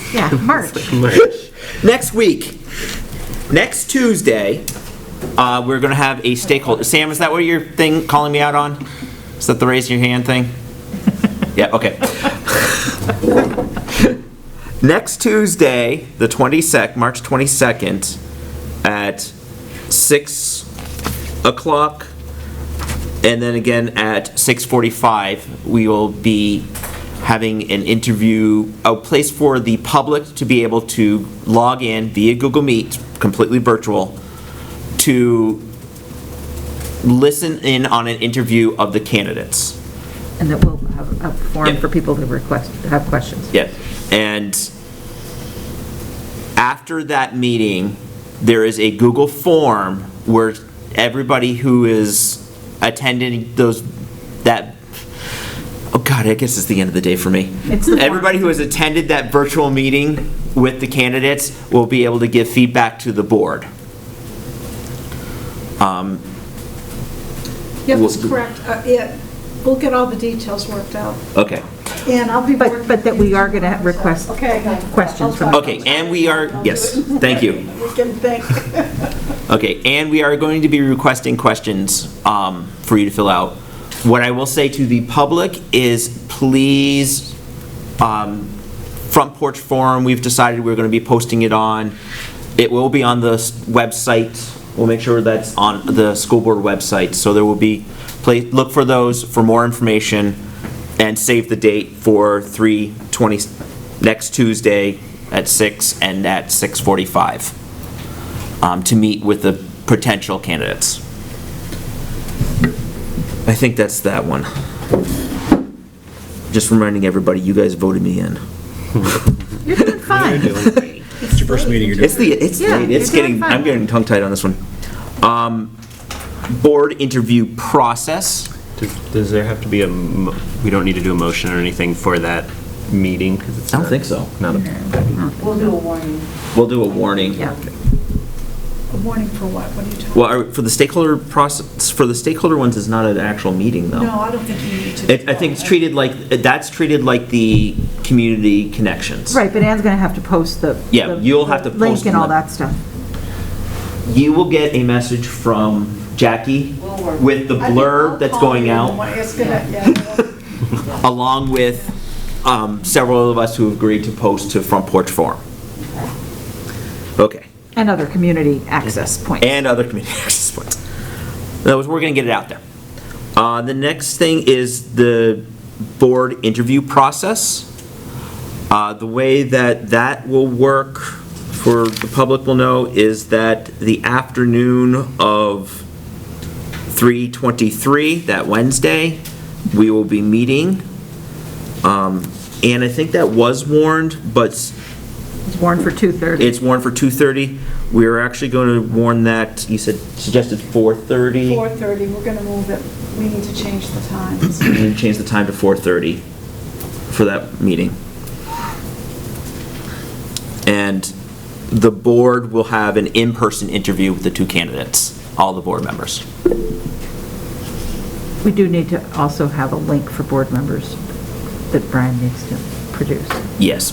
Yeah, March. Next week, next Tuesday, uh, we're gonna have a stakeholder, Sam, is that what your thing, calling me out on? Is that the raising your hand thing? Yeah, okay. Next Tuesday, the 22nd, March 22nd, at 6 o'clock, and then again at 6:45, we will be having an interview, a place for the public to be able to log in via Google Meet, completely virtual, to listen in on an interview of the candidates. And that we'll have a form Yeah. for people to request, have questions. Yeah, and after that meeting, there is a Google form where everybody who is attending those, that, oh God, I guess it's the end of the day for me. It's the form. Everybody who has attended that virtual meeting with the candidates will be able to give feedback to the board. Yep, that's We'll- correct. Uh, Yeah, we'll get all the details worked out, Okay, and I'll be But, working. but that we are going to request Okay. questions from. okay, and we are, yes, thank you. We can think. Okay, and we are going to be requesting questions um, for you to fill out. What I will say to the public is, please, um, Front Porch Forum, we've decided we're going to be posting it on. It will be on the s- website. We'll make sure that's on the school board website. So there will be, pla- look for those for more information and save the date for 3/20, next Tuesday at six and at 6:45 um, to meet with the potential candidates. I think that's that one. Just reminding everybody, you guys voted me in. You're doing fine. It's your first meeting, you're doing. It's the, it's, Yeah, late, it's you're doing getting, fine. I'm getting tongue-tied on this one. Um, Board interview process. Does does there have to be a, mo- we don't need to do a motion or anything for that meeting? 'cause it's I don't not- think so. Not a We'll do a warning. We'll do a warning. Yeah. A warning for what? What are you talking? Well, are- for the stakeholder process, for the stakeholder ones is not an actual meeting, though. No, I don't think you need to. It- I think it's treated like, that's treated like the community connections. Right, but Anne's going to have to post the. Yeah, the- you'll have to the post Link and all them. that stuff. you will get a message from Jackie We'll work. with the I think I'll blurb that's call going you out, and when It's gonna, yeah. along with um, several of us who agreed to post to Front Porch Forum. Okay, And other community access points. Mm-hmm. and other community access points. In other words, we're going to get it out there. Uh, The next thing is the board interview process. Uh, The way that that will work, for the public will know, is that the afternoon of 3:23, that Wednesday, we will be meeting. Um, And I think that was warned, but s- It's warned for 2:30. it's warned for 2:30. We are actually going to warn that, you said, suggested 4:30? 4:30, we're gonna move it. We need to change the times. We need to change the time to 4:30 for that meeting. And the board will have an in-person interview with the two candidates, all the board members. We do need to also have a link for board members that Brian needs to produce. Oh, Yes.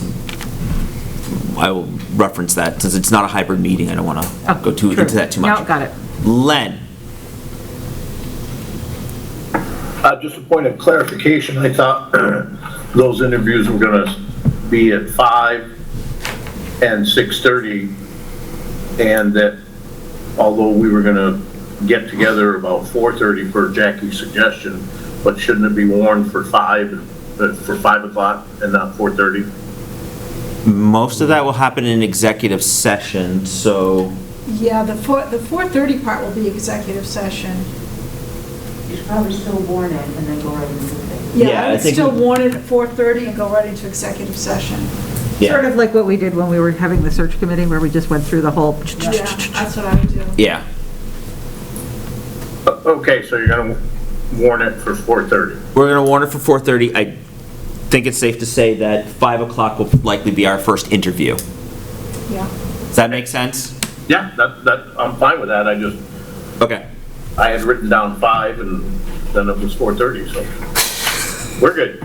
I will reference that, since it's not a hybrid meeting, I don't want to Oh, go too, true. into that too much. No, got it. Len, Uh, Just a point of clarification, I thought those interviews were going to be at five and 6:30, and that although we were going to get together about 4:30 for Jackie's suggestion, but shouldn't it be warned for five uh, for five o'clock and not 4:30? most of that will happen in executive session, so Yeah, the 4, the 4:30 part will be executive session. You should probably still warn it and then go right into it. Yeah, Yeah, I I would think- still warn it at 4:30 and go right into executive session. Sort yeah, of like what we did when we were having the search committee, where we just went through the whole. Yeah, that's what I would do. yeah, O- Okay, so you're going to warn it for 4:30. we're going to warn it for 4:30. I think it's safe to say that 5 o'clock will likely be our first interview. Yeah. Does that make sense? Yeah, that, that, I'm fine with that, I just, Okay. I had written down five, and then it was 4:30, so we're good.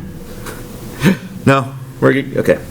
No, we're good, okay.